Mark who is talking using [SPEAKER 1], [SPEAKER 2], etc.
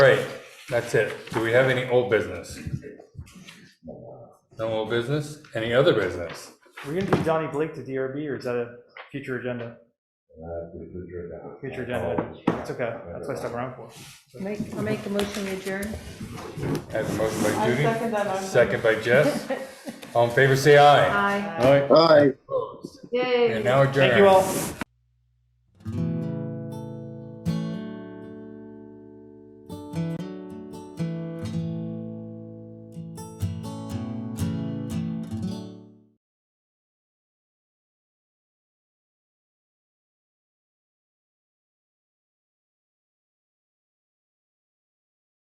[SPEAKER 1] right, that's it. Do we have any old business? No old business? Any other business?
[SPEAKER 2] We're gonna do Donnie Blake to DRB, or is that a future agenda? Uh, Future agenda. It's okay, that's what I stuck around for.
[SPEAKER 3] Make, I'll make the motion to adjourn.
[SPEAKER 1] Have a motion by
[SPEAKER 4] I
[SPEAKER 1] Judy?
[SPEAKER 4] second that. I'm-
[SPEAKER 1] Second by Jess. All in favor, say aye.
[SPEAKER 3] Aye.
[SPEAKER 5] Aye.
[SPEAKER 1] And now adjourn.
[SPEAKER 2] Thank you all.